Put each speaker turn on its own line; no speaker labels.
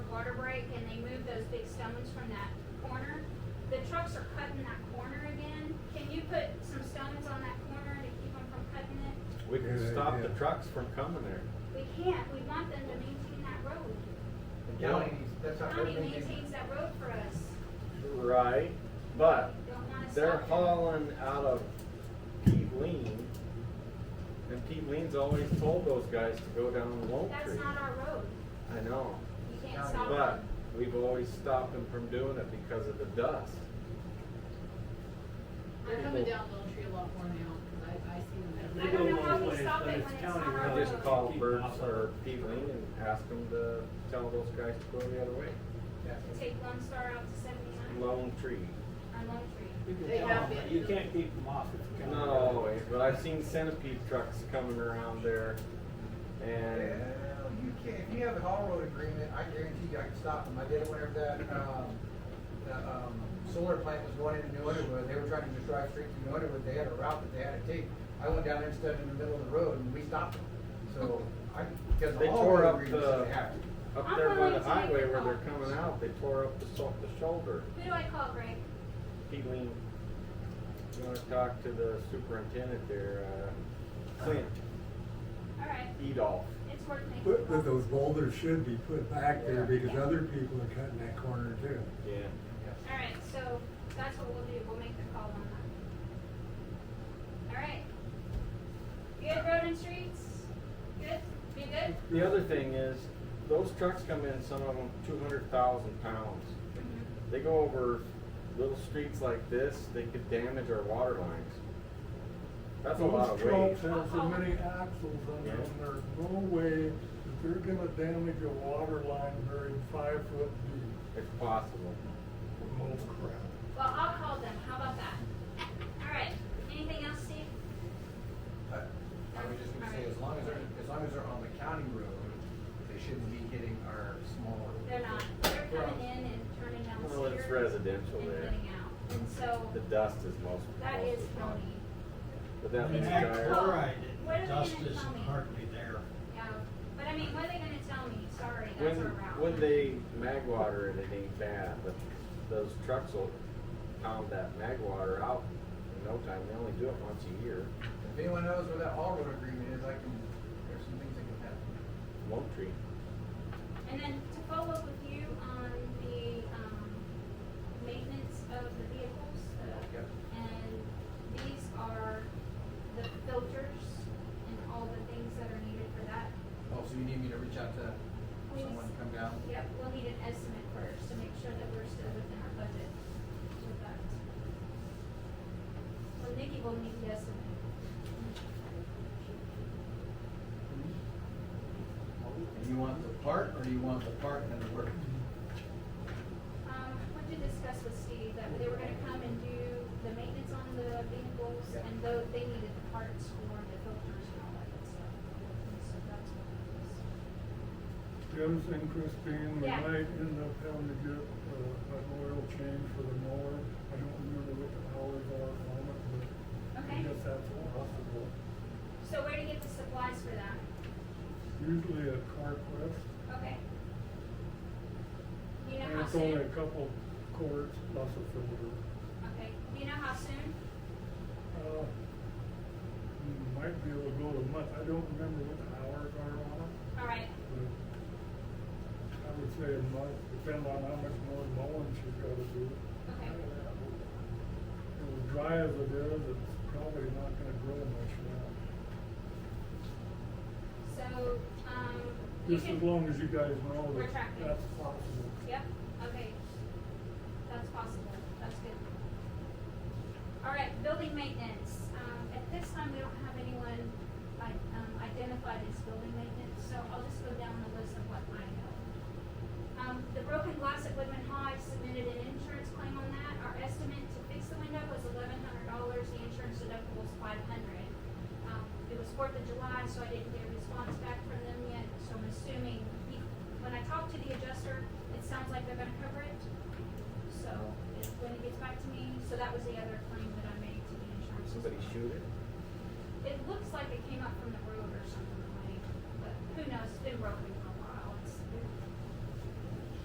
water break and they moved those big stones from that corner. The trucks are cutting that corner again. Can you put some stones on that corner to keep them from cutting it?
We can
Good
stop the
idea.
trucks from coming there.
We can't. We want them to maintain that road.
The county, that's
The
not their
county
thing.
maintains that road for us.
Right, but
Don't wanna stop
they're
it.
hauling out of Peebleen. And Peebleen's always told those guys to go down Lone
That's
Tree.
not our road.
I know,
You can't
County
stop
but
them.
we've always stopped them from doing it because of the dust.
They're coming down Lone Tree a lot more now, because I, I see them.
I
everywhere.
don't know how we stop it when it's not our
I
road.
just called Burt's or Peebleen and asked them to tell those guys to go the other way.
Yeah.
To take Lone Star out to seventy-nine
Lone Tree.
on Lone Tree.
You can
They
tell
have
them,
been.
you can't keep them off if you can.
Not always, but I've seen centipede trucks coming around there and
Well, you can, if you have an all road agreement, I guarantee you I can stop them. I did it whenever that, um, the, um, solar plant was going into New Underwood. They were trying to just drive straight through New Underwood. They had a route that they had to take. I went down there and stood in the middle of the road and we stopped them. So I, because
They
the all
tore
road
up
agreements,
the-
they have to.
Up
I'm
there by
going to
the
take
highway
the
where they're
call.
coming out, they tore up the so- the shoulder.
Who do I call, Greg?
He leaned, you wanna talk to the superintendent there, uh, Clint
All right,
Edolph.
it's worth making. a
But, but
call.
those boulders should be put back there because other people are cutting that corner too.
Yeah.
All right, so that's what we'll do. We'll make the call on that. All right. Good road and streets? Good? Be good?
The other thing is, those trucks come in, some of them two hundred thousand pounds. They go over little streets like this, they could damage our water lines. That's a lot of weight.
Those trucks have so many axles on them, there's no way that they're gonna damage a water line buried five foot deep.
It's possible.
Oh crap.
Well, I'll call them. How about that? All right. Anything else, Steve?
I I was just gonna say, as long as they're, as long as they're on the county road, they shouldn't be hitting our smaller.
They're not. They're coming in and turning down the
Well, it's
street and
residential there.
getting out. And so
The dust is most.
that
most
is
of the time.
county.
But that means
Yeah.
tires.
chloride, What are they
dust
gonna
isn't
tell me?
hardly there.
Yeah. But I mean, what are they gonna tell me? Sorry,
When,
that's our route.
when they mag water it, it ain't bad, but those trucks will pound that mag water out in no time, they only do it once a year.
If anyone knows where that all road agreement is, I can, there's some things that can happen.
Lone Tree,
And then to follow up with you on the, um, maintenance of the vehicles, uh,
Yep.
and these are the filters and all the things that are needed for that.
Oh, so you need me to reach out to someone to come down?
Yep, we'll need an estimate first to make sure that we're still within our budget with that. Well, Nikki will need the estimate.
And you want the part, or do you want the part and the work?
Um, what did you discuss with Steve, that they were gonna come and do the maintenance on the vehicles,
Yeah.
and though they needed the parts for the filters and all that good stuff. And So that's what it was.
Joe's and Christine, we
Yeah.
might end up having to get, uh, an oil change for the mower. I don't remember what the hours are on it, but I
Okay.
guess that's possible.
So where do you get the supplies for that?
Usually at Carquest,
Okay. Do you know
and
how
it's only
soon?
a couple quarts plus a filter.
Okay, do you know how soon?
Uh, hmm, Might be able to go to month, I don't remember what the hours are on it.
All right,
I would say it might depend on how much more mowing she's gotta do.
okay,
As dry as it is, it's probably not gonna grow much now.
so, um, you
Just as
can,
long as you guys know
We're
that
tracking.
that's possible.
yep, okay. That's possible, that's good. All right, building maintenance, um, at this time, we don't have anyone, like, um, identified as building maintenance, so I'll just go down the list of what I know. Um, the broken glass at Woodman High submitted an insurance claim on that. Our estimate to fix the window was eleven hundred dollars. The insurance deductible was five hundred. Um, it was Fourth of July, so I didn't get a response back from them yet, so I'm assuming, he- when I talked to the adjuster, it sounds like they're gonna cover it. So, it- when it gets back to me, so that was the other claim that I made to the insurance.
somebody shoot it.
It looks like it came up from the road or something, like, but who knows, it's been broken.